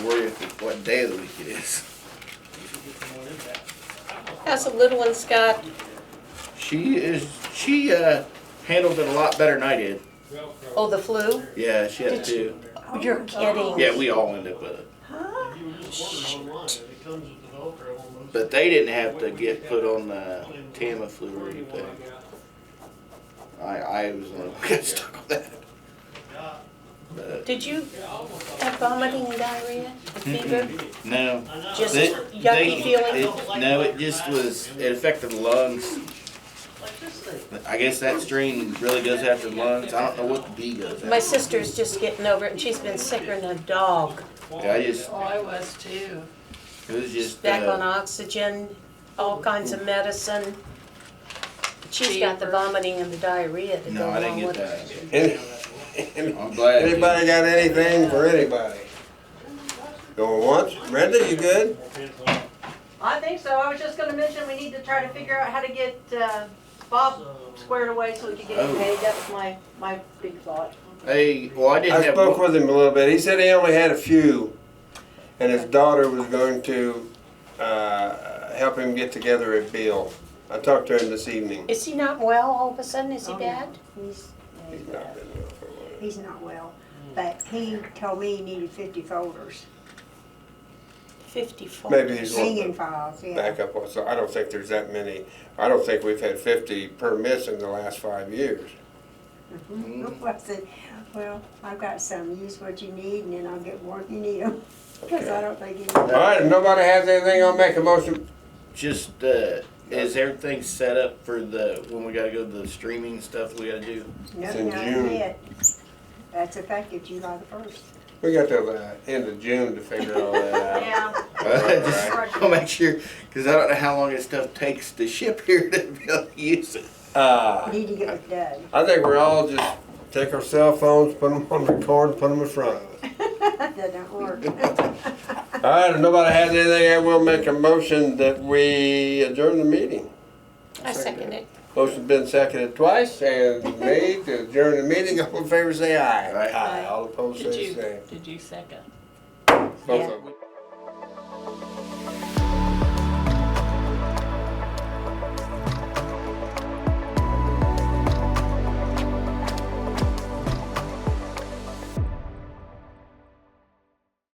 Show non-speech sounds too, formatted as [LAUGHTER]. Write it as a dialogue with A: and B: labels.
A: Worry if, what day of the week it is.
B: How's the little one, Scott?
A: She is, she, uh, handled it a lot better than I did.
B: Oh, the flu?
A: Yeah, she had two.
B: Oh, you're kidding.
A: Yeah, we all ended up with it.
B: Huh?
C: You just order online, it comes with the Velcro almost.
A: But they didn't have to get put on the Tamiflu or anything. I, I was the one who got [LAUGHS] stuck on that. But,
B: Did you have vomiting and diarrhea and fever?
A: no.
B: Just
A: They-
B: yucky
A: they-
B: feeling?
A: it- No, it just was, it affected the lungs.
C: Like this thing.
A: I guess that strain really goes after the lungs. I don't know what the B goes
B: My
A: after.
B: sister's just getting over it and she's been sicker than a dog.
A: Yeah, I just,
D: Oh, I was too.
A: it was just,
B: Back on
A: uh,
B: oxygen, all kinds of medicine. She's got the
D: Fever.
B: vomiting and the diarrhea to go
A: no, I didn't
B: along
A: get
B: with it.
A: that.
E: Any-
A: I'm glad. I did.
E: Anybody got anything for anybody? Going once? Brenda, you good?
F: I think so. I was just gonna mention, we need to try to figure out how to get, uh, Bob squared away so we could get him
A: Oh.
F: paid. That was my, my big thought.
A: Hey, well, I didn't
E: I
A: have.
E: spoke
A: one-
E: with him a little bit. He said he only had a few, and his daughter was going to uh, help him get together a bill. I talked to him this evening.
B: Is he not well all of a sudden? Is he
F: Oh, yeah.
B: bad?
G: He's, yeah,
E: He's
G: he's,
E: not
G: bad.
E: been well for a while.
G: he's not well, but he told me he needed fifty folders,
B: Fifty-four.
E: Maybe he's one.
G: singing files, yeah.
E: Back up on, so I don't think there's that many. I don't think we've had 50 permits in the last five years.
G: Mhm. [LAUGHS] I said, Well, I've got some, use what you need and then I'll get more if you [LAUGHS] need them, cause I don't think he
E: All right, if nobody has anything, I'll make a motion.
A: Just uh, is everything set up for the when we gotta go to the streaming stuff we gotta do? [LAUGHS]
E: It's
G: nothing
E: in
G: not
E: June.
G: yet. That's effective July the first.
E: We got till the end of June to figure all that out.
F: Yeah.
A: Just I'll make sure because I don't know how long this stuff takes to ship here to be able to use it.
E: Uh,
G: Need to get with Doug.
E: I think we're all just take our cell phones, put them on record, put them in front of us.
G: [LAUGHS] That don't work.
E: [LAUGHS] All right, if nobody has anything, I will make a motion that we adjourn the meeting.
B: I second it.
E: Motion's been seconded twice and made to adjourn the meeting. [LAUGHS] All in favor, say aye.
A: Aye.
E: All opposed,
D: Did
E: say the
D: you,
E: same.
D: did you second?
E: Both of them.